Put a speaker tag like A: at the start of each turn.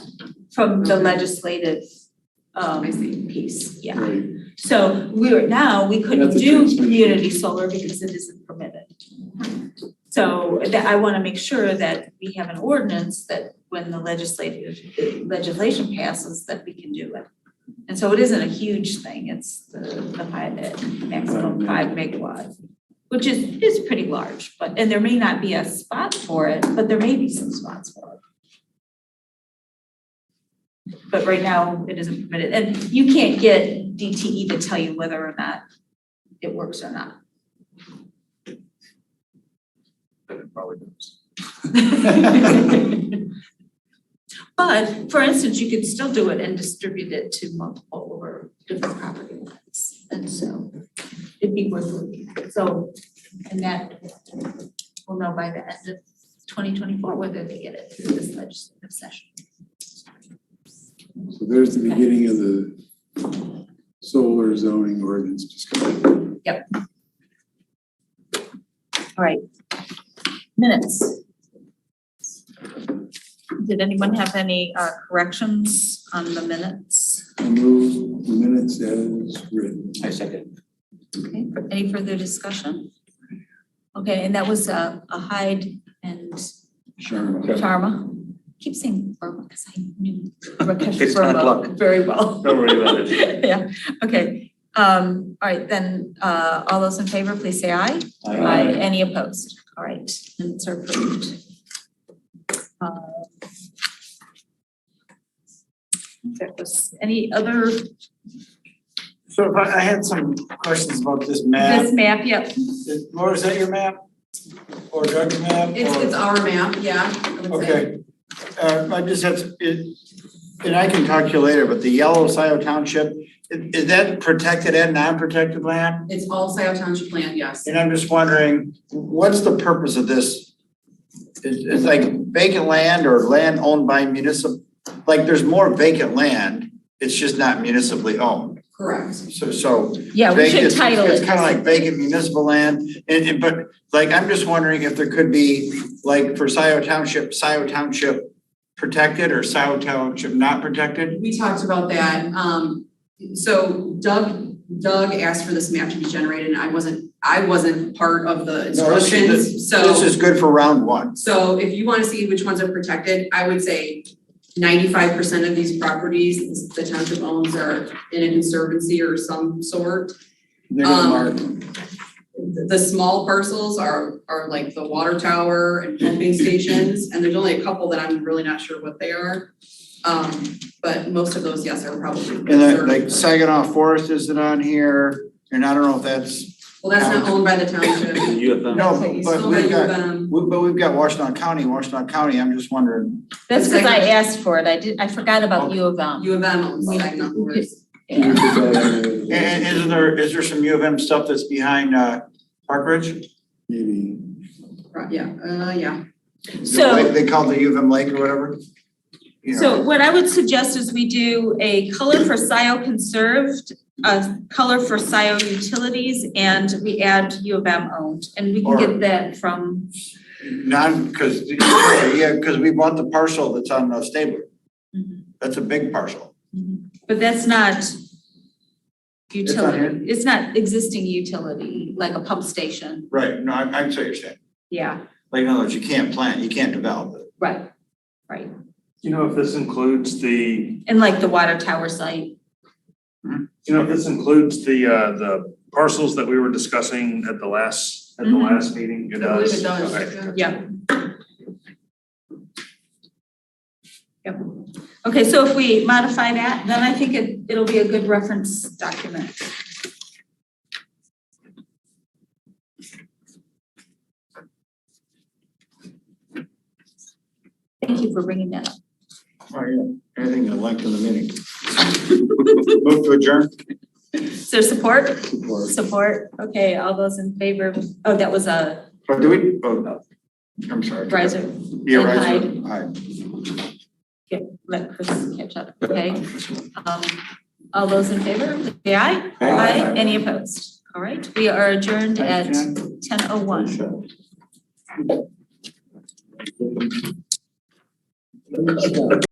A: from the
B: Okay.
A: legislative um
B: I see.
A: piece, yeah.
C: Right,
A: So we are now, we couldn't
C: That's a
A: do
C: transmission.
A: community solar because it isn't permitted. So that I wanna make sure that we have an ordinance that when the legislative legislation passes, that we can do it. And so it isn't a huge thing, it's the the five, the maximum five megawatts, which is is pretty large, but and there may not be a spot for it, but there may be some spots for it. But right now, it isn't permitted, and you can't get DTE to tell you whether or not it works or not.
C: but it probably does.
A: But for instance, you could still do it and distribute it to multiple or different property lines, and so it'd be worth looking at, so, and that we'll know by the end of twenty twenty-four whether they get it through this legislative session.
C: So there's the beginning of the solar zoning ordinance discussion.
A: All right. Minutes. Did anyone have any uh, corrections on the minutes?
C: I move the minutes as written.
D: I second.
A: Okay, any further discussion? Okay, and that was uh, a Hyde and
C: Sharma.
A: Sharma. Keep saying Burma because I knew Rakesh
D: It's bad luck.
A: Verma very well.
D: Don't worry about it.
A: Yeah, okay. Um, All right, then, uh, all those in favor, please say aye. Aye. Any opposed? All right, minutes are approved. Um, That was, any other,
E: So I I had some questions about this
A: this
E: map.
A: map, yep,
E: Is- Laura, is that your map? Or Doug's map?
B: It's,
E: or-
B: it's our map, yeah, I would say.
E: Okay. Uh, I just had, some- it, and I can talk to you later, but the yellow Scioto Township, i- is that protected and non-protected land?
B: It's all Scioto Township land, yes.
E: And I'm just wondering, what's the purpose of this? It's, it's like vacant land or land owned by municipal, like there's more vacant land, it's just not municipally owned.
B: Correct.
E: So, so
A: yeah, we should
E: Vacant-
A: title it.
E: It's kind of like vacant municipal land, and, and, but, like, I'm just wondering if there could be, like, for Scioto Township, Scioto Township protected or Scioto Township not protected?
B: We talked about that, um, so Doug, Doug asked for this map to be generated, and I wasn't, I wasn't part of
E: No,
B: the
E: this is the-
B: instructions, so.
E: This is good for round one.
B: So if you wanna see which ones are protected, I would say ninety-five percent of these properties the township owns are in a conservancy or some sort.
E: They're gonna
B: Um,
E: mark.
B: The the small parcels are, are like the water tower and pumping stations, and there's only a couple that I'm really not sure what they are. Um, but most of those, yes, are probably
E: And then,
B: conserved.
E: like, Saginaw Forest isn't on here, and I don't know if that's,
B: Well, that's not owned by the township,
D: You have them.
E: no,
A: Okay,
B: it's
E: but
B: owned by
E: we've
B: U of
E: got,
B: M.
E: we- but we've got Washington County, Washington County, I'm just wondering.
A: That's because I asked for it, I did, I forgot
E: Oh.
A: about U of M.
B: U of M owns Saginaw Forest.
A: Yeah.
E: And, and isn't there, is there some U of M stuff that's behind, uh, Park Ridge?
C: Maybe.
B: Right, yeah, uh, yeah,
A: So-
E: Like, They call it the U of M Lake or whatever? You know.
A: So what I would suggest is we do a color for SIO conserved, a color for SIO utilities, and we add U of M owned, and we can get that from,
E: Not, because, yeah, because we bought the parcel that's on uh, Stabler.
A: Mhm.
E: That's a big parcel.
A: but that's not
E: not here?
A: utility, it's not existing utility, like a pump station,
E: Right, no, I, I see what you're saying.
A: yeah,
E: Like, in other words, you can't plant, you can't develop it.
A: right, right.
F: You know, if this includes the,
A: And like the water tower site,
F: you know, if this includes the, uh, the parcels that we were discussing at the last, at the
A: Mhm.
F: last meeting,
B: I
F: it
B: believe
F: does.
B: it does,
F: Okay.
B: yeah.
A: yeah. Yep, okay, so if we modify that, then I think it, it'll be a good reference document. Thank you for bringing that up.
E: Oh, yeah. Anything to lengthen the meeting. Move to adjourn.
A: Is there support?
C: Support.
A: Support, okay, all those in favor, oh, that was a
E: Oh, do we, oh, I'm sorry.
A: riser.
E: Yeah, riser. Aye.
A: Okay, let Chris catch up, okay? Um, all those in favor, say aye. Aye. Any opposed? All right, we are adjourned at ten oh one.